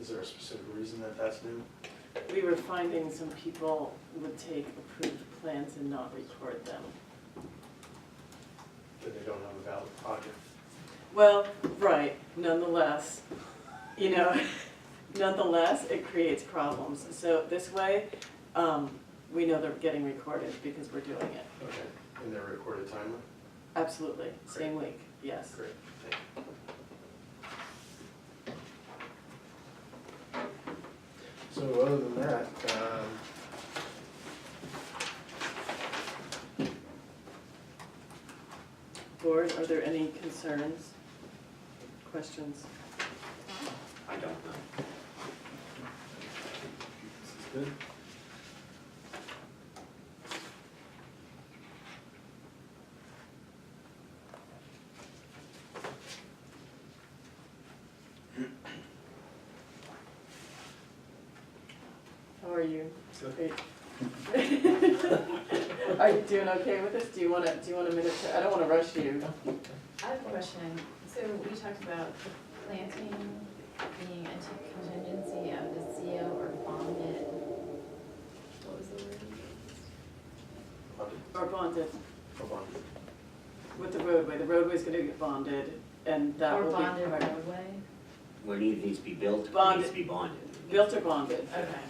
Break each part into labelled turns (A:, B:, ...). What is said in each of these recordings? A: Is there a specific reason that that's due?
B: We were finding some people would take approved plans and not record them.
A: That they don't have a valid project?
B: Well, right, nonetheless, you know, nonetheless, it creates problems. So this way, um, we know they're getting recorded because we're doing it.
A: Okay, and they're recorded timely?
B: Absolutely, same week, yes.
A: Great, thank you. So other than that, um,
B: Board, are there any concerns, questions?
C: I don't know.
A: this is good.
B: How are you?
A: Good.
B: Great. Are you doing okay with this? Do you wanna, do you want a minute to, I don't wanna rush you.
D: I have a question. So we talked about the planting being a t- contingency of the CO or bond bid. What was the word?
A: Bonded,
B: Or bonded
A: or bonded.
B: with the roadway, the roadway's gonna get bonded and that will
D: Or
B: be.
D: bonded roadway?
C: Where it either needs to be built, it
B: Bonded.
C: needs to be bonded.
B: Built or bonded
D: Okay,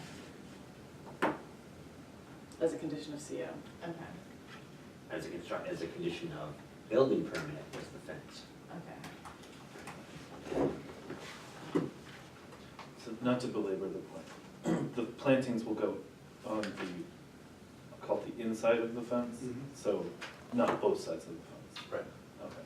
B: as a condition of CO.
D: okay,
C: As a construct, as a condition of building permit was the fence.
D: okay.
E: So not to belabor the point, the plantings will go on the, I'll call it the inside of the fence,
A: Mhm.
E: so not both sides of the fence.
A: Right.
E: Okay.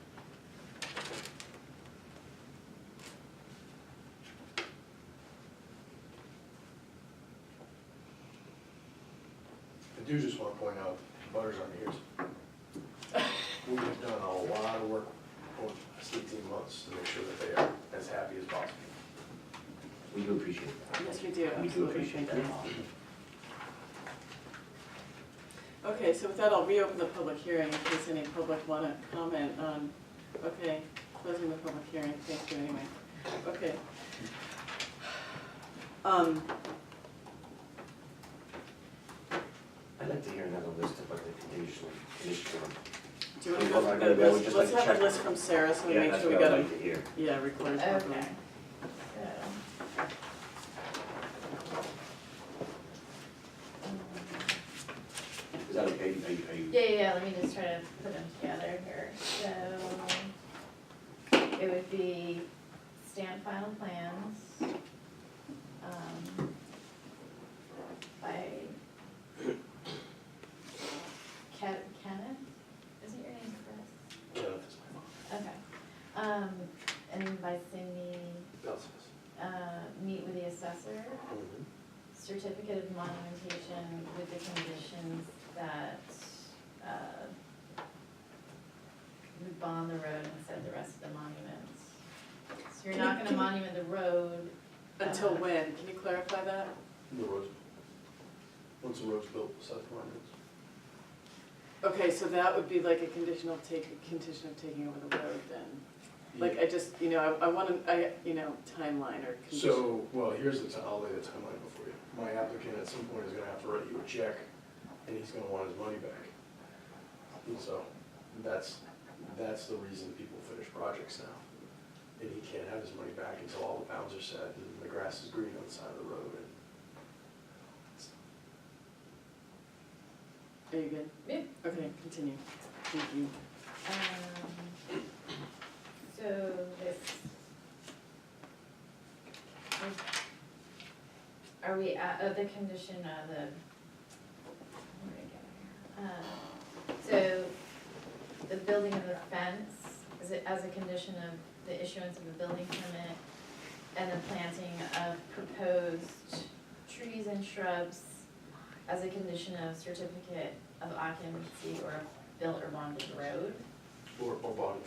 A: I do just want to point out, butters on yours. We've done a lot of work over the past eighteen months to make sure that they are as happy as possible.
C: We do appreciate that.
B: Yes, we do,
C: We do
B: absolutely,
C: appreciate
B: thank
C: that.
B: you all. Okay, so with that, I'll reopen the public hearing in case any public wanna comment on, okay, closing the public hearing, thank you anyway, okay. Um,
C: I'd like to hear another list of what the conditional, conditional.
B: do you wanna
C: Well,
B: go
C: I
B: through
C: gotta go,
B: the
C: we
B: list,
C: just
B: let's
C: like
B: have a
C: check.
B: list from Sarah so we
C: Yeah,
B: make
C: that's
B: sure we
C: what
B: got
C: I'd
B: them,
C: like to hear.
B: yeah, recorded properly.
D: Okay. So.
C: Is that okay? Are you, are you?
D: Yeah, yeah, yeah, let me just try to put them together here, so. It would be stamp final plans. um, By. Ken, Kenneth, isn't your name Chris?
A: Yeah, that's my mom.
D: Okay, um, and by Cindy,
A: That's
D: uh, meet with the assessor,
A: us.
D: certificate of monumentation with the conditions that, uh, we bond the road and set the rest of the monuments. So you're not gonna monument the road, uh,
B: Until when, can you clarify that?
A: The roads. Once the road's built, we'll set the monuments.
B: Okay, so that would be like a conditional take, a condition of taking over the road then? Like, I just, you know, I, I wanna, I, you know, timeline or condition.
A: So, well, here's the, ti- I'll lay the timeline before you. My applicant at some point is gonna have to write you a check, and he's gonna want his money back. And so, that's, that's the reason people finish projects now. And he can't have his money back until all the bounds are set and the grass is green on the side of the road and.
B: Are you good?
D: Yep.
B: Okay, continue. Thank you.
D: um, so this. Are we at, oh, the condition of the. where did I get it? Uh, So, the building of the fence, is it as a condition of the issuance of the building permit? And the planting of proposed trees and shrubs as a condition of certificate of occupancy or of built or bonded road?
A: Or, or body.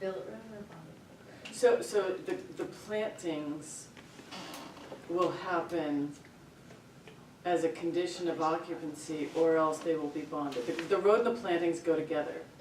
D: Built road or bonded road?
B: So, so the, the plantings will happen as a condition of occupancy or else they will be bonded. The, the road and the plantings go together.